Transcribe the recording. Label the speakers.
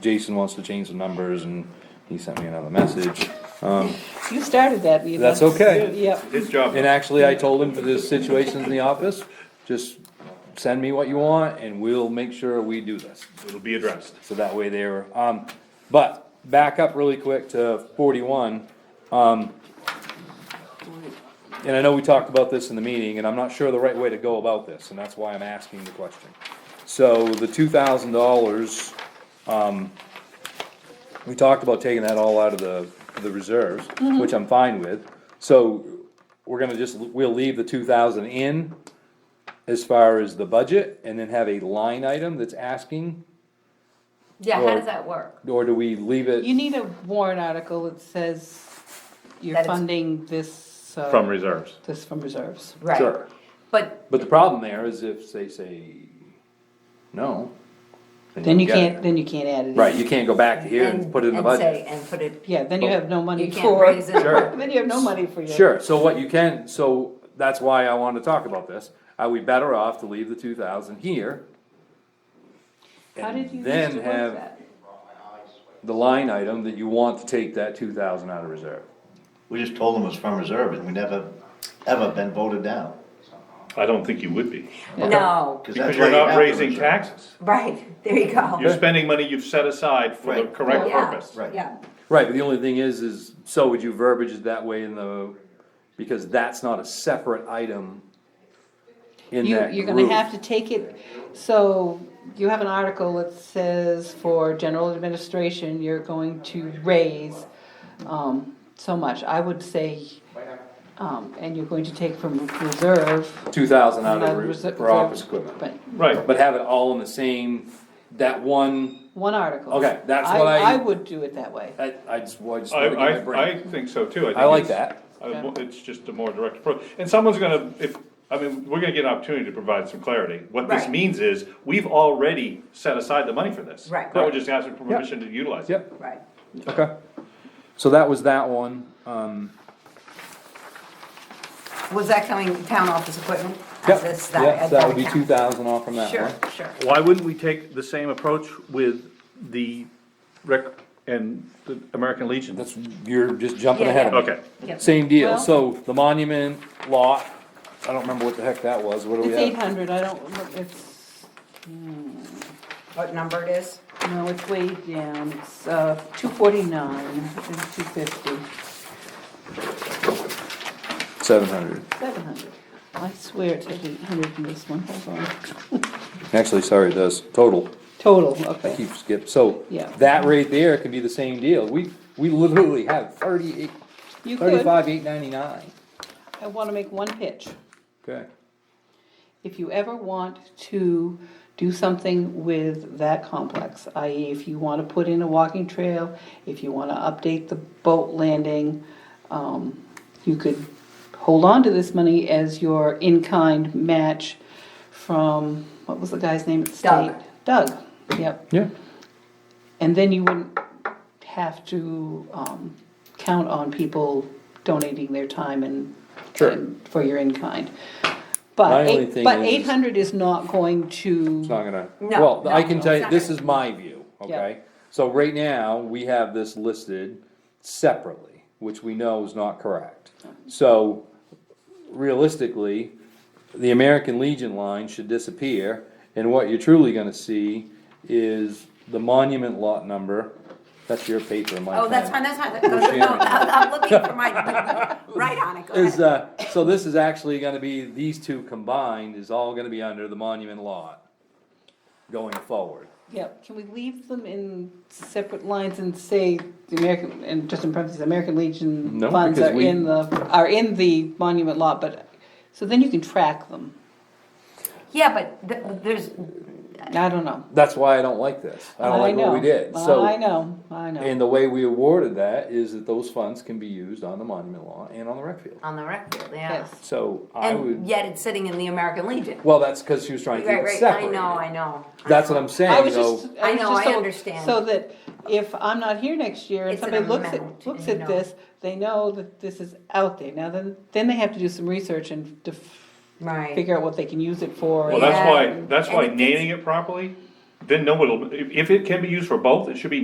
Speaker 1: Jason wants to change the numbers, and he sent me another message. Um,
Speaker 2: You started that, Eva.
Speaker 1: That's okay.
Speaker 2: You- Yep.
Speaker 3: His job.
Speaker 1: and actually, I told him for this situation in the office, just send me what you want, and we'll make sure we do this.
Speaker 3: It'll be addressed.
Speaker 1: So that way they were, um, but back up really quick to forty-one, um. And I know we talked about this in the meeting, and I'm not sure the right way to go about this, and that's why I'm asking the question. So the two thousand dollars, um, we talked about taking that all out of the, the reserves, which I'm fine with. So we're gonna just, we'll leave the two thousand in as far as the budget, and then have a line item that's asking
Speaker 4: Yeah, how
Speaker 1: Or-
Speaker 4: does that work?
Speaker 1: or do we leave
Speaker 2: You
Speaker 1: it?
Speaker 2: need a warrant article that says you're
Speaker 4: That it's-
Speaker 2: funding this, uh,
Speaker 3: From reserves.
Speaker 2: this from reserves.
Speaker 4: Right,
Speaker 1: Sure.
Speaker 4: but
Speaker 1: But the problem there is if they say no.
Speaker 2: Then you
Speaker 1: don't get it.
Speaker 2: can't, then you can't add it in.
Speaker 1: Right, you can't go back to here and
Speaker 4: and,
Speaker 1: put it in the
Speaker 4: and say,
Speaker 1: budget.
Speaker 4: and put it,
Speaker 2: Yeah, then you have no money
Speaker 4: you
Speaker 2: for.
Speaker 4: can't raise it.
Speaker 1: Sure.
Speaker 2: Then you have no money for your.
Speaker 1: Sure, so what you can, so that's why I wanted to talk about this. Are we better off to leave the two thousand here?
Speaker 2: How
Speaker 1: and
Speaker 2: did you used
Speaker 1: then
Speaker 2: to work
Speaker 1: have
Speaker 2: that?
Speaker 1: The line item that you want to take that two thousand out of reserve.
Speaker 5: We just told them it's from reserve and we never, ever been voted down.
Speaker 3: I don't think you would be,
Speaker 4: No,
Speaker 5: that's
Speaker 3: because
Speaker 5: why
Speaker 3: you're
Speaker 5: you have
Speaker 3: not
Speaker 5: the
Speaker 3: raising
Speaker 5: reserve.
Speaker 3: taxes.
Speaker 4: right, there you go.
Speaker 3: You're spending money you've set aside for the
Speaker 5: Right.
Speaker 3: correct
Speaker 4: Yeah,
Speaker 3: purpose.
Speaker 5: Right.
Speaker 4: Yeah,
Speaker 1: Right, but the only thing is, is, so would you verbiage it that way in the, because that's not a separate item in
Speaker 2: You,
Speaker 1: that
Speaker 2: you're gonna
Speaker 1: group.
Speaker 2: have to take it, so you have an article that says for general administration, you're going to raise, um, so much. I would say, um, and you're going to take from reserve.
Speaker 1: two thousand out
Speaker 2: uh,
Speaker 1: of re-
Speaker 2: reser-
Speaker 1: for office
Speaker 2: reserve,
Speaker 1: equipment.
Speaker 2: But
Speaker 3: Right,
Speaker 1: But have it all in the same, that one,
Speaker 2: one article.
Speaker 1: Okay, that's what I-
Speaker 2: I would do it that way.
Speaker 1: I, I just, well, I just
Speaker 3: I,
Speaker 1: wanna get my
Speaker 3: I, I
Speaker 1: brain.
Speaker 3: think so too. think
Speaker 1: I like
Speaker 3: it's-
Speaker 1: that.
Speaker 3: I- It's just a more direct approach, and someone's gonna, if, I mean, we're gonna get an opportunity to provide some clarity. What this
Speaker 4: Right.
Speaker 3: means is, we've already set aside the money for this.
Speaker 4: Right.
Speaker 3: Now we're just asking for permission to utilize it.
Speaker 1: Yep,
Speaker 4: right.
Speaker 1: okay. So that was that one, um,
Speaker 4: Was that coming, town office equipment?
Speaker 1: yep,
Speaker 4: That's that-
Speaker 1: yep,
Speaker 4: at
Speaker 1: that would be two
Speaker 4: account.
Speaker 1: thousand off from that one.
Speaker 4: Sure, sure.
Speaker 3: Why wouldn't we take the same approach with the rec and the American Legion?
Speaker 1: That's, you're just jumping
Speaker 4: Yeah,
Speaker 1: ahead of me.
Speaker 4: yeah.
Speaker 3: Okay,
Speaker 4: Yep.
Speaker 1: Same deal,
Speaker 2: Well-
Speaker 1: so the monument lot, I don't remember what the heck that was, what do we
Speaker 2: It's eight
Speaker 1: have?
Speaker 2: hundred, I don't, it's,
Speaker 4: What number it is?
Speaker 2: no, it's way down, it's, uh, two forty-nine and two fifty,
Speaker 1: Seven hundred,
Speaker 2: seven hundred. I swear it's eight hundred in this one, hold on.
Speaker 1: actually, sorry, it does, total.
Speaker 2: Total, okay.
Speaker 1: keep skip, so.
Speaker 2: Yeah.
Speaker 1: That right there can be the same deal, we, we literally have thirty-eight,
Speaker 2: You could,
Speaker 1: thirty-five, eight ninety-nine.
Speaker 2: I wanna make one pitch.
Speaker 1: Okay.
Speaker 2: If you ever want to do something with that complex, i.e. if you wanna put in a walking trail, if you wanna update the boat landing, um, you could hold on to this money as your in-kind match from, what was the guy's name at the
Speaker 4: Doug.
Speaker 2: state? Doug, yep.
Speaker 1: Yeah.
Speaker 2: And then you wouldn't have to, um, count on people donating their time and,
Speaker 1: Sure.
Speaker 2: and for your in-kind.
Speaker 1: My
Speaker 2: But,
Speaker 1: only
Speaker 2: eight-
Speaker 1: thing
Speaker 2: but
Speaker 1: is-
Speaker 2: eight hundred is not going
Speaker 1: It's not
Speaker 2: to,
Speaker 1: gonna,
Speaker 4: No,
Speaker 1: well, I
Speaker 4: no,
Speaker 1: can
Speaker 4: no,
Speaker 1: tell
Speaker 4: it's
Speaker 1: you,
Speaker 4: not
Speaker 1: this
Speaker 4: gonna-
Speaker 1: is my view,
Speaker 2: Yeah.
Speaker 1: okay? So right now, we have this listed separately, which we know is not correct. So realistically, the American Legion line should disappear, and what you're truly gonna see is the monument lot number, that's your paper, my
Speaker 4: Oh, that's
Speaker 1: pen.
Speaker 4: fine, that's fine.
Speaker 1: sharing
Speaker 4: No,
Speaker 1: it.
Speaker 4: I'm looking for my, right on it, go
Speaker 1: Is,
Speaker 4: ahead.
Speaker 1: uh, so this is actually gonna be, these two combined is all gonna be under the monument lot going forward.
Speaker 2: yep, can we leave them in separate lines and say the American, and just in parentheses, American Legion
Speaker 1: No,
Speaker 2: funds
Speaker 1: because
Speaker 2: are
Speaker 1: we-
Speaker 2: in the, are in the monument lot, but, so then you can track them,
Speaker 4: Yeah, but th- there's,
Speaker 2: I don't know.
Speaker 1: That's why I don't like this. I don't like what we
Speaker 2: know.
Speaker 1: did.
Speaker 2: I
Speaker 1: So,
Speaker 2: know, I know,
Speaker 1: and the way we awarded that is that those funds can be used on the monument law and on the rec field.
Speaker 4: on the record, yeah.
Speaker 2: yes,
Speaker 1: So I
Speaker 4: And
Speaker 1: would,
Speaker 4: yet it's sitting in the American Legion.
Speaker 1: well, that's because she was trying to
Speaker 4: Right,
Speaker 1: keep it
Speaker 4: right, I
Speaker 1: separated.
Speaker 4: know, I know. I
Speaker 1: That's
Speaker 4: know.
Speaker 1: what I'm
Speaker 2: I
Speaker 1: saying,
Speaker 2: was just.
Speaker 1: though.
Speaker 4: I
Speaker 2: was
Speaker 4: know,
Speaker 2: just
Speaker 4: I
Speaker 2: so-
Speaker 4: understand.
Speaker 2: So that if I'm not here next year and
Speaker 4: It's an
Speaker 2: somebody looks at,
Speaker 4: amount,
Speaker 2: looks
Speaker 4: I
Speaker 2: at
Speaker 4: know.
Speaker 2: this, they know that this is out there. Now then, then they have to do some research and def-
Speaker 4: Right.
Speaker 2: figure out what they can use it for.
Speaker 3: well,
Speaker 2: and-
Speaker 3: that's
Speaker 4: Yeah.
Speaker 3: why, that's why
Speaker 4: And it
Speaker 3: naming it properly then nobody, will- if, if it can be used for both, it should be